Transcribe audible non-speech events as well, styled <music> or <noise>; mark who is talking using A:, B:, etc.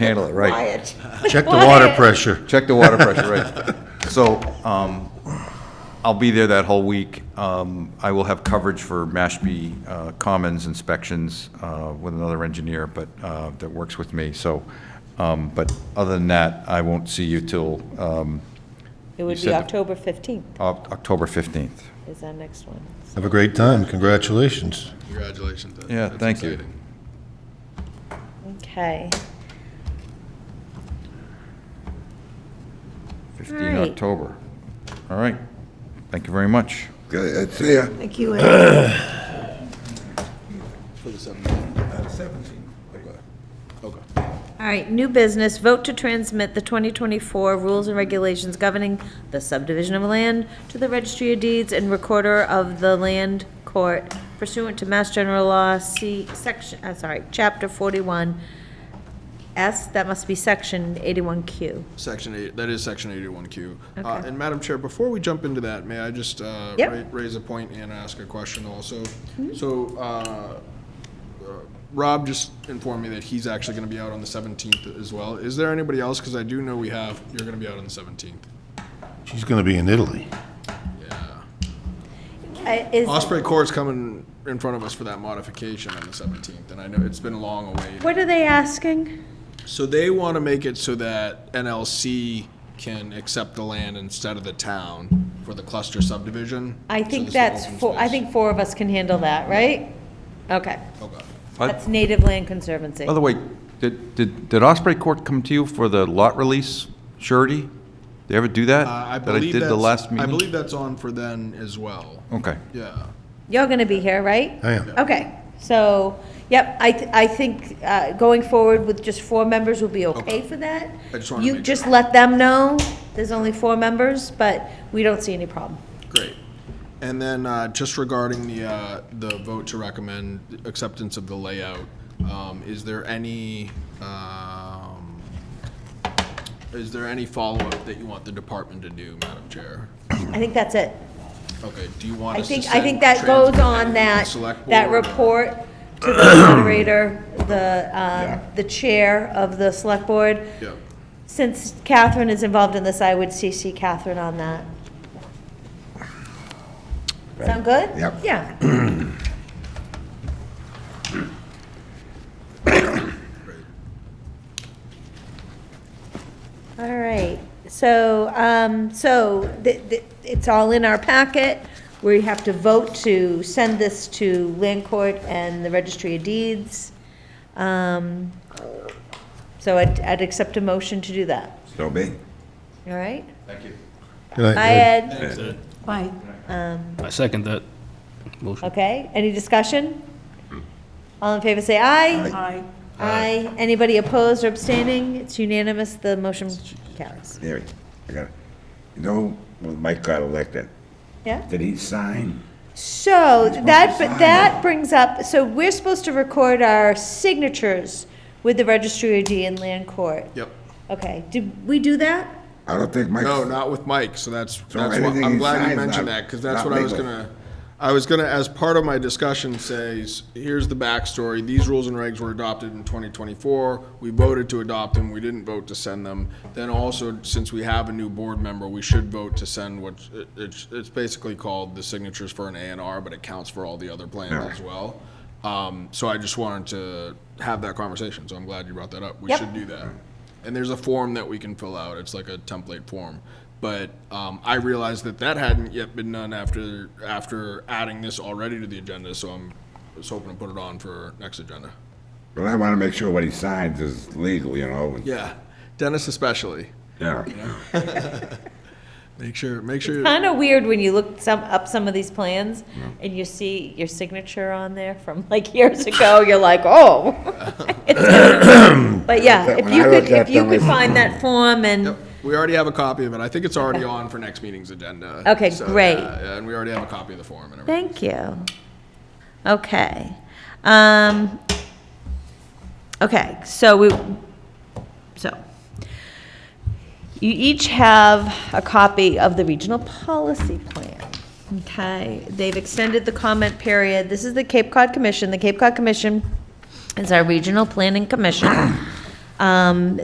A: handle it, right?
B: Wyatt.
C: Check the water pressure.
A: Check the water pressure, right. So, um, I'll be there that whole week. Um, I will have coverage for Mashpee uh, Commons inspections uh, with another engineer, but, uh, that works with me, so, um, but other than that, I won't see you till, um,
B: It would
A: said
B: be
A: the-
B: October 15th
A: Oc- October 15th.
B: is our next one.
C: Have a great time. Congratulations.
D: Congratulations. that-
A: Yeah,
D: that's
A: thank you.
D: exciting.
B: Okay.
A: 15
B: Right.
A: October. All right. Thank you very much.
E: Good, uh, see ya.
B: Thank you, Ed.
D: For the 17th. Okay.
B: All right, new business, vote to transmit the 2024 rules and regulations governing the subdivision of land to the registry of deeds and recorder of the land court pursuant to Mass General Law, C, section, i sorry, Chapter 41, S, that must be Section 81Q.
D: Section eight, that is section eighty-one Q. Uh,
B: Okay.
D: And Madam Chair, before we jump into that, may I just uh,
B: Yep. Mm-hmm.
D: ra- raise a point and ask a question also? So uh, uh, Rob just informed me that he's actually going to be out on the seventeenth as well. Is there anybody else? Because I do know we have, you're going to be out on the seventeenth.
C: She's going to be in Italy.
B: Uh, Is,
D: Osprey Court's coming in front of us for that modification on the seventeenth, and I know it's been long awaited.
B: what are they asking?
D: So they want to make it so that NLC can accept the land instead of the town for the cluster subdivision.
B: I
D: So
B: think
D: this is
B: that's,
D: open
B: four. I
D: space.
B: think four of us can handle that, right? Okay.
D: Okay. Uh,
A: By-
B: That's Native Land Conservancy.
A: By the way, did, did did Osprey Court come to you for the lot release surety? They ever do that?
D: Uh, I
A: That I
D: believe
A: did the
D: that's-
A: last
D: I
A: meeting? Oh.
D: believe that's on for then as well.
A: Okay.
D: Yeah.
B: You're going to be here, right?
C: I am.
B: Okay, so, yep, I, th- I think uh, going forward with just four members will be okay
D: Okay.
B: for that.
D: I just wanted to
B: You
D: make
B: just let them know, there's only four members, but we don't see any problem.
D: Great. And then uh, just regarding the, uh, the vote to recommend acceptance of the layout, um, is there any, um, is there any follow-up that you want the department to do, Madam Chair?
B: I think that's it.
D: Okay, do you want
B: I
D: us Mm-hmm. to
B: think,
D: send?
B: I think that goes
D: transmit
B: on
D: to the
B: that,
D: select
B: that
D: board?
B: report to
D: <coughs>
B: the moderator, the, um, the chair of the select board.
D: Yeah,
B: Since Catherine is involved in this, I would CC Catherine on that. Sound good?
E: Yep.
B: Yeah. All right, so, um, so th- th- it's all in our packet. We have to vote to send this to Land Court and the Registry of Deeds. Um, So I'd, I'd accept a motion to do that,
E: So be.
B: all right?
C: Good night,
B: Hi,
C: Ed.
B: Ed.
F: Bye. I second that motion.
B: Okay, any discussion? All in favor, say aye.
F: Aye.
B: Aye. Anybody opposed or abstaining? It's unanimous, the motion carries.
E: There, I got it. You know, when Mike got elected,
B: Yeah?
E: did he sign?
B: So that, but that brings up, so we're supposed to record our signatures with the registry of deed and land court.
D: yep.
B: Okay, did we do that?
E: I don't think Mike.
D: No, not with Mike, so that's,
E: So
D: that's what,
E: anything
D: I'm
E: he
D: glad you
E: signs
D: mentioned
E: not-
D: that, because that's
E: not
D: what I was
E: legal.
D: gonna, I was gonna, as part of my discussion says, here's the backstory, these rules and regs were adopted in twenty twenty-four, we voted to adopt them, we didn't vote to send them. Then also, since we have a new board member, we should vote to send what, it- it's, it's basically called the signatures for an A and R, but it counts for all the other plans as well. Um, so I just wanted to have that conversation, so I'm glad you brought that up. We
B: Yep.
D: should do that. And there's a form that we can fill out. It's like a template form. But um, I realized that that hadn't yet been done after after adding this already to the agenda. So I'm was hoping to put it on for next agenda.
E: But I want to make sure what he signs is legal, you know? and-
D: Yeah, Dennis especially.
E: Yeah.
D: Make sure make sure
B: Kind of weird when you look some, up some of these plans and you see your signature on there from like years ago, you're like,
E: <laughs>
B: oh. But yeah, if
E: When
B: you
E: I
B: could,
E: looked at
B: if you
E: them,
B: could
E: it's-
B: find that form and,
D: Yep, we already have a copy of it. I think it's already on for next meeting's agenda.
B: Okay, great.
D: yeah, yeah, and we already have a copy of the form and everything.
B: thank you. Okay. Um, okay, so we, so. You each have a copy of the regional policy plan. Okay, they've extended the comment period. This is the Cape Cod Commission. <coughs> The Cape Cod Commission is our regional planning commission. Um,